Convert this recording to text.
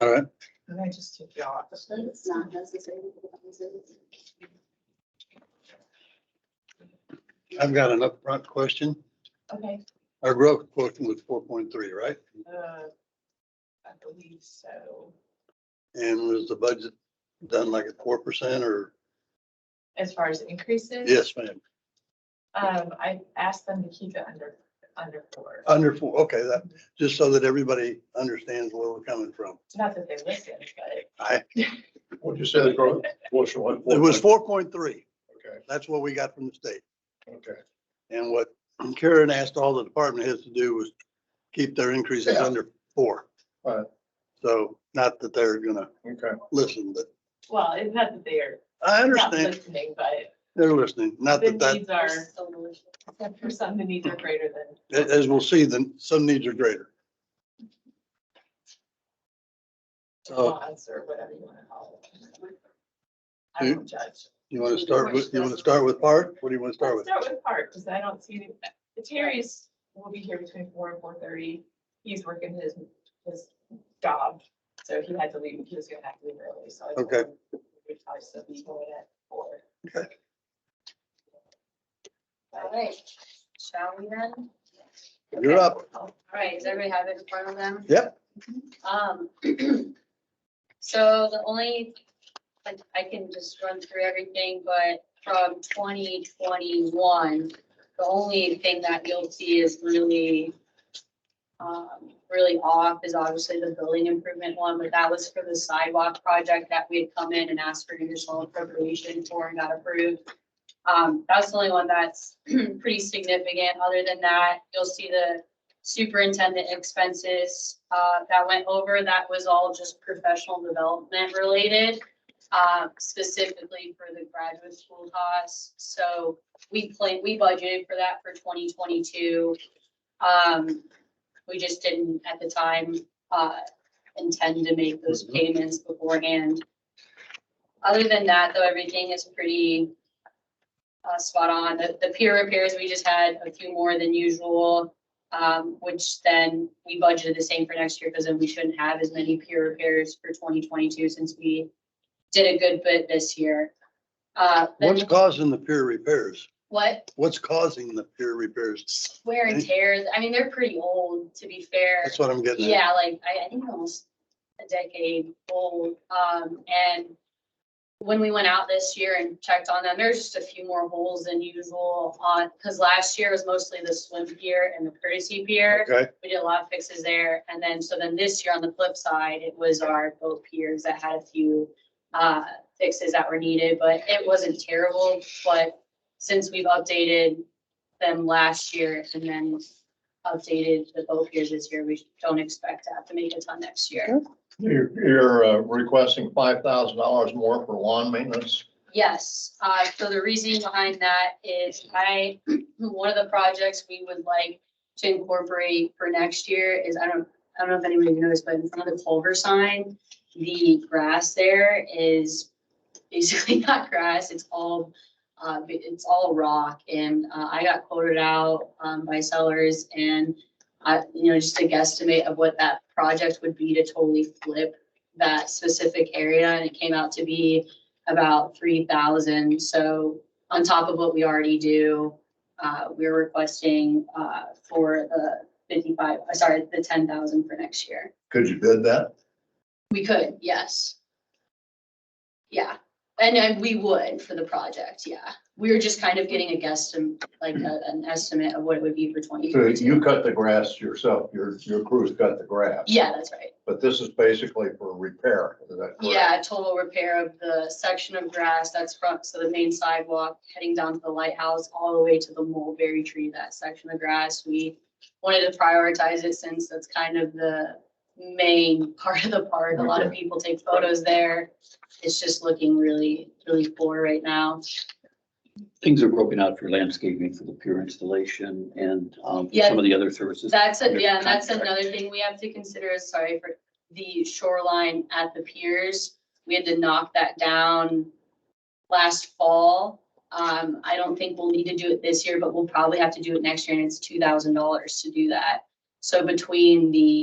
All right, And I just took you off. but it's not necessary. I've got an upfront question. Okay. Our growth quotient was four point three, right? Uh, I believe so. And was the budget done like at four percent or? As far as increases. Yes, ma'am. Um, I asked them to keep it under, under four. Under four, okay, that, just so that everybody understands where we're coming from. It's Not that they listened, but I, What'd you say the growth? What's your? it was four point three. Okay, That's what we got from the state. okay. And what Karen asked all the department heads to do was keep their increases Yeah. under four. Right. So not that they're gonna Okay. listen, but well, it's not that they're I not understand listening, but they're listening. Not the that that, needs are, Except for some, the needs are greater than a- as we'll see, then some needs are greater. So wants or whatever you want to call it. I Dude. don't judge. you want to start with, you want to start with part? What do you want to start Let's with? start with Park, because I don't see, any- the Terry's will be here between four and four thirty. He's working his, his job, so he had to leave, he was gonna have to leave early, so. I told Okay. him We'd probably still be going at four. Okay. All right, shall we then? You're up. All right, does everybody have it in front of them? Yep. Um, so the only, I, I can just run through everything, but from twenty twenty-one, the only thing that you'll see is really, um, really off is obviously the building improvement one, but that was for the sidewalk project that we had come in and asked for additional appropriation for and got approved. Um, that's the only one that's pretty significant. Other than that, you'll see the superintendent expenses, uh, that went over, that was all just professional development related. Uh, specifically for the graduate school costs, so we plan, we budgeted for that for twenty twenty-two. Um, we just didn't at the time, uh, intend to make those Mhm. payments beforehand. Other than that, though, everything is pretty, uh, spot on. The, the peer repairs, we just had a few more than usual. Um, which then we budgeted the same for next year because then we shouldn't have as many peer repairs for twenty twenty-two since we did a good bit this year. Uh, then- What's causing the peer repairs? what What's causing the peer repairs? wear and tears, I mean, they're pretty old, to be fair. That's what I'm getting at. Yeah, like, I, I think almost a decade old, um, and when we went out this year and checked on them, there's just a few more holes than usual on, because last year was mostly the swim pier and the courtesy pier. Okay, We did a lot of fixes there, and then, so then this year on the flip side, it was our boat piers that had a few uh, fixes that were needed, but it wasn't terrible, but since we've updated them last year and then updated the boat piers this year, we don't expect to have to make a ton next year. You're, you're uh, requesting five thousand dollars more for lawn maintenance? Yes, uh, so the reasoning behind that is I, one of the projects we would like to incorporate for next year is, I don't, I don't know if anybody noticed, but in front of the Culver sign, the grass there is basically not grass, it's all, uh, it's all rock. And, uh, I got quoted out, um, by sellers and, I, you know, just a guesstimate of what that project would be to totally flip that specific area. And it came out to be about three thousand. So on top of what we already do, uh, we're requesting, uh, for the fifty-five, uh, sorry, the ten thousand for next year. Could you bid that? We could, yes. Yeah, and, and we would for the project, yeah. We were just kind of getting a guess, like a- an estimate of what it would be for twenty So twenty-two. you cut the grass yourself, your, your crews cut the grass? Yeah, that's right. But this is basically for repair, is that correct? Yeah, total repair of the section of grass that's front, so the main sidewalk heading down to the lighthouse, all the way to the mulberry tree, that section of grass. We wanted to prioritize it since that's kind of the main part of the park. A lot of people take photos there. It's just looking really, really poor right now. Things are broken out for landscaping for the pure installation and um, for some of the other services. That's, a Under yeah, and that's contract. another thing we have to consider, is, sorry, for the shoreline at the piers. We had to knock that down last fall. Um, I don't think we'll need to do it this year, but we'll probably have to do it next year, and it's two thousand dollars to do that. So between the